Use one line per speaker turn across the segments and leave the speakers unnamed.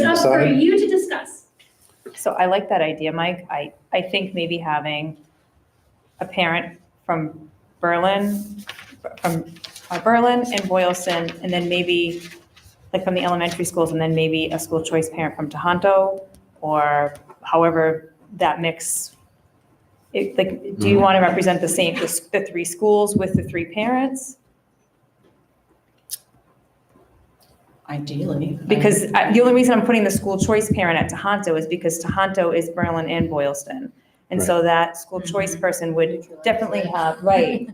So for
decide?
you to discuss.
So I like that idea, Mike. I, I think maybe having a parent from Berlin, from uh, Berlin and Boylston, and then maybe, like from the elementary schools, and then maybe a school choice parent from Tohoto, or however that mix. It, like, do you want to represent the same, the s- the three schools with the three parents?
Ideally. I-
Because uh, I- the only reason I'm putting the school choice parent at Tohoto is because Tohoto is Berlin and Boylston. And so that school
Mm-hmm.
choice person would definitely have, right,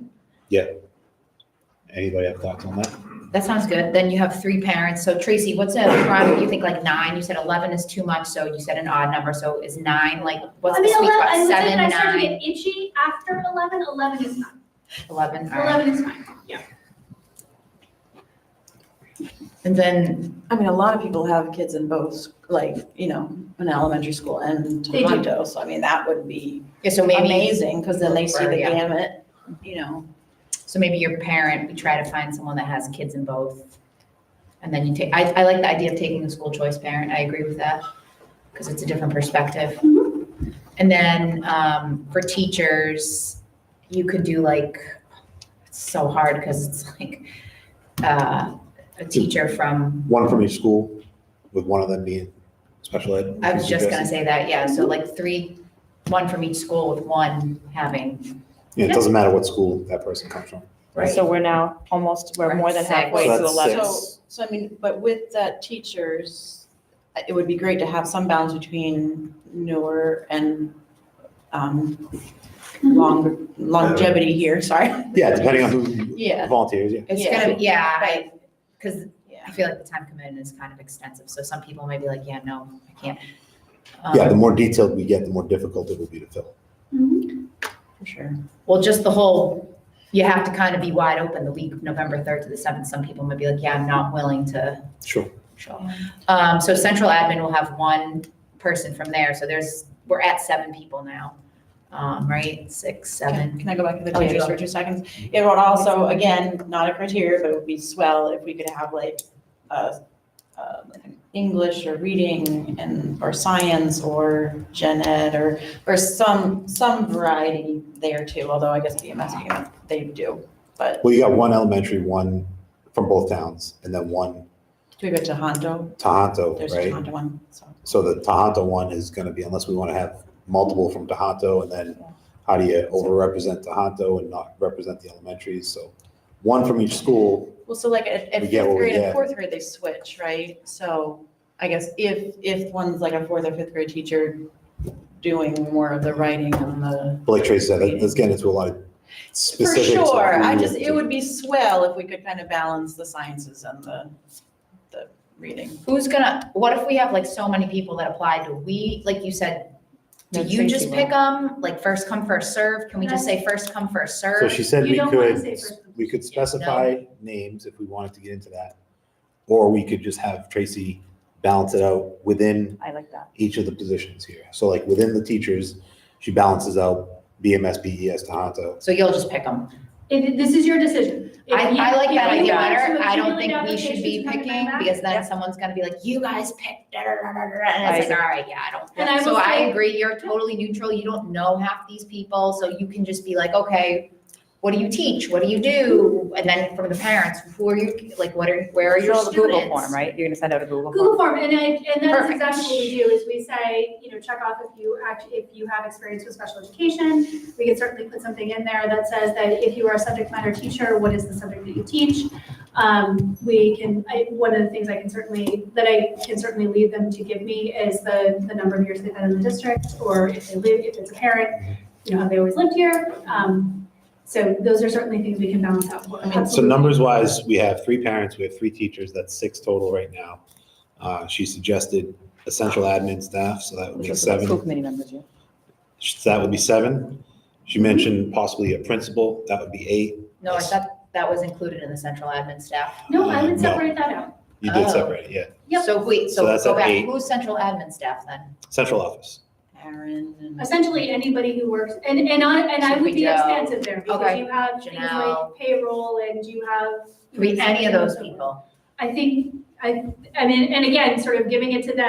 Anybody have thoughts on that?
That sounds good. Then you have three parents. So Tracy, what's a prime? You think like nine? You said eleven is too much, so you said an odd number. So is nine like what's
I
the
mean,
sweet
eleven, I
spot?
was like,
Seven,
when I started to
nine,
get itchy after eleven, eleven is fine.
eleven. All right.
Eleven is fine, yeah.
And then
I mean, a lot of people have kids in both, like, you know, an elementary school and
They do.
Tohoto. So I mean, that would be
yeah, so maybe
amazing because then they see the
Yeah.
gamut, you know.
so maybe your parent. We try to find someone that has kids in both, and then you take. I, I like the idea of taking the school choice parent. I agree with that because it's a different perspective. And then um, for teachers, you could do like it's so hard because it's like uh, a teacher from
One from each school, with one of them being special ed.
I was just gonna
Suggested.
say that, yeah, so like three, one from each school with one having,
Yeah, it doesn't matter what school that person comes from.
right?
so we're now almost, we're more than
Right, six.
halfway to
So that's
11.
six.
So, so I mean, but with that teachers, uh, it would be great to have some balance between newer and um, longer longevity here, sorry.
Yeah, depending on who
Yeah.
volunteers, yeah.
It's
Yeah.
gonna, be yeah, I, cause
Yeah.
I feel like the time commitment is kind of extensive, so some people may be like, yeah, no, I can't.
Yeah, the
Um,
more detailed we get, the more difficult it will be to fill.
For sure.
Well, just the whole, you have to kind of be wide open the week, of November third to the seventh, some people might be like, yeah, I'm not willing to.
Sure.
show. Um, so central admin will have one person from there, so there's, we're at seven people now, um, right, six, seven?
Can I go back to the
Oh,
teachers
sure.
for two seconds? It would also, again, not a criteria, but it would be swell if we could have like, uh, uh, English or reading and, or science or gen ed or, or some, some variety there too, although I guess BMS, you know, they do.
Well, you got one elementary, one from both towns, and then one
Do we go to Hondo?
Tohoto,
There's a
right?
Hondo one, so.
So the Tohoto one is gonna be, unless we wanna have multiple from Tohoto, and then how do you overrepresent Tohoto and not represent the elementaries? So one from each school,
Well, so like at,
We
at
get what
fifth
we
grade and
get.
fourth grade, they switch, right? So I guess if, if one's like a fourth or fifth grade teacher doing more of the writing and the.
but like Tracy said, that- that's getting into a lot of
For
specifics. of
sure, I
who-
just, it would be swell if we could kind of balance the sciences and the, the reading.
Who's gonna, what if we have like so many people that apply, do we, like you said, do
No,
you just
Tracy
pick them, like first come, first served, can we just say first come, first
So
served?
she said
You
we
don't wanna say
could,
first.
we could specify names if we wanted to get into that. Or we could just have Tracy balance it out within
I like that.
each of the positions here. So like within the teachers, she balances out BMS, BES, E Tohoto.
So you'll just pick them,
If, this is your decision. If
I,
you-
I like
if
that
you
idea
want to
better, I don't think
accumulate
we should be
applications and come
picking,
back,
because then
Yep.
someone's gonna be like, you guys picked, da, da, da, da, da," and it's
I
like, all right, yeah, I don't.
And I
So
will
I
say-
agree, you're totally neutral, you don't know half these people, so you can just be like, okay, what do you teach, what do you do, and then from the parents, who are you, like, what are, where are your
Fill the
students?
Google form, right? You're going to send out a Google
Google
form.
form, and I, and that's
Perfect.
exactly what we do, is we say, you know, check off if you act, if you have experience with special education. We can certainly put something in there that says that if you are a subject matter teacher, what is the subject that you teach? Um, we can, I, one of the things I can certainly, that I can certainly lead them to give me is the, the number of years they've been in the district, or if they live, if it's a parent, you know, have they always lived here? Um, so those are certainly things we can balance out.
So numbers wise, we have three parents, we have three teachers, that's six total right now. Uh, she suggested essential admin staff, so that would
Which
be
is what School
seven.
committee members, yeah.
So That would be seven. She mentioned possibly a principal, that would be eight.
No, I thought that was included in the central admin staff.
No, I would
No,
separate that out.
You did
Oh.
separate, it, yeah.
Yep.
So wait,
So
so
that's
go
at eight.
back, who's central admin staff then?
Central office.
Aaron and.
Essentially, anybody who works, and, and I, and I would be
Joe.
expansive there, because
Okay.
you have things like
Janelle.
payroll and you have.
Could be any of those people.
I think, I, I mean, and again, sort of giving it to them